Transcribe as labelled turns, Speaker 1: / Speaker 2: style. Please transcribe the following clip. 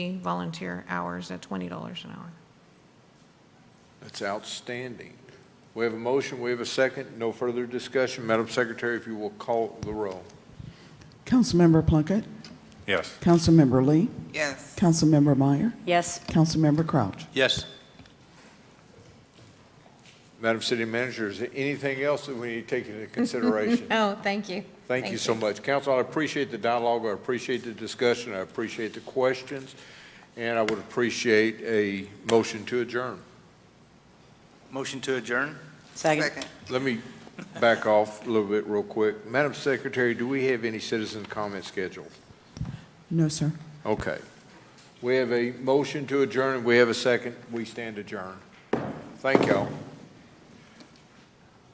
Speaker 1: volunteer hours at $20 an hour.
Speaker 2: That's outstanding. We have a motion, we have a second, no further discussion. Madam Secretary, if you will call the roll.
Speaker 3: Councilmember Plunkett,
Speaker 4: Yes.
Speaker 3: Councilmember Lee,
Speaker 5: Yes.
Speaker 3: Councilmember Meyer,
Speaker 6: Yes,
Speaker 3: Councilmember Crouch.
Speaker 4: Yes.
Speaker 2: Madam City Manager, is there anything else that we need to take into consideration?
Speaker 1: Oh, thank you.
Speaker 2: Thank you so much. Council, I appreciate the dialogue, I appreciate the discussion, I appreciate the questions, and I would appreciate a motion to adjourn.
Speaker 4: Motion to adjourn?
Speaker 6: second.
Speaker 2: Let me back off a little bit real quick. Madam Secretary, do we have any citizen comment scheduled?
Speaker 3: No, sir.
Speaker 2: Okay. We have a motion to adjourn, we have a second, we stand adjourned. Thank y'all.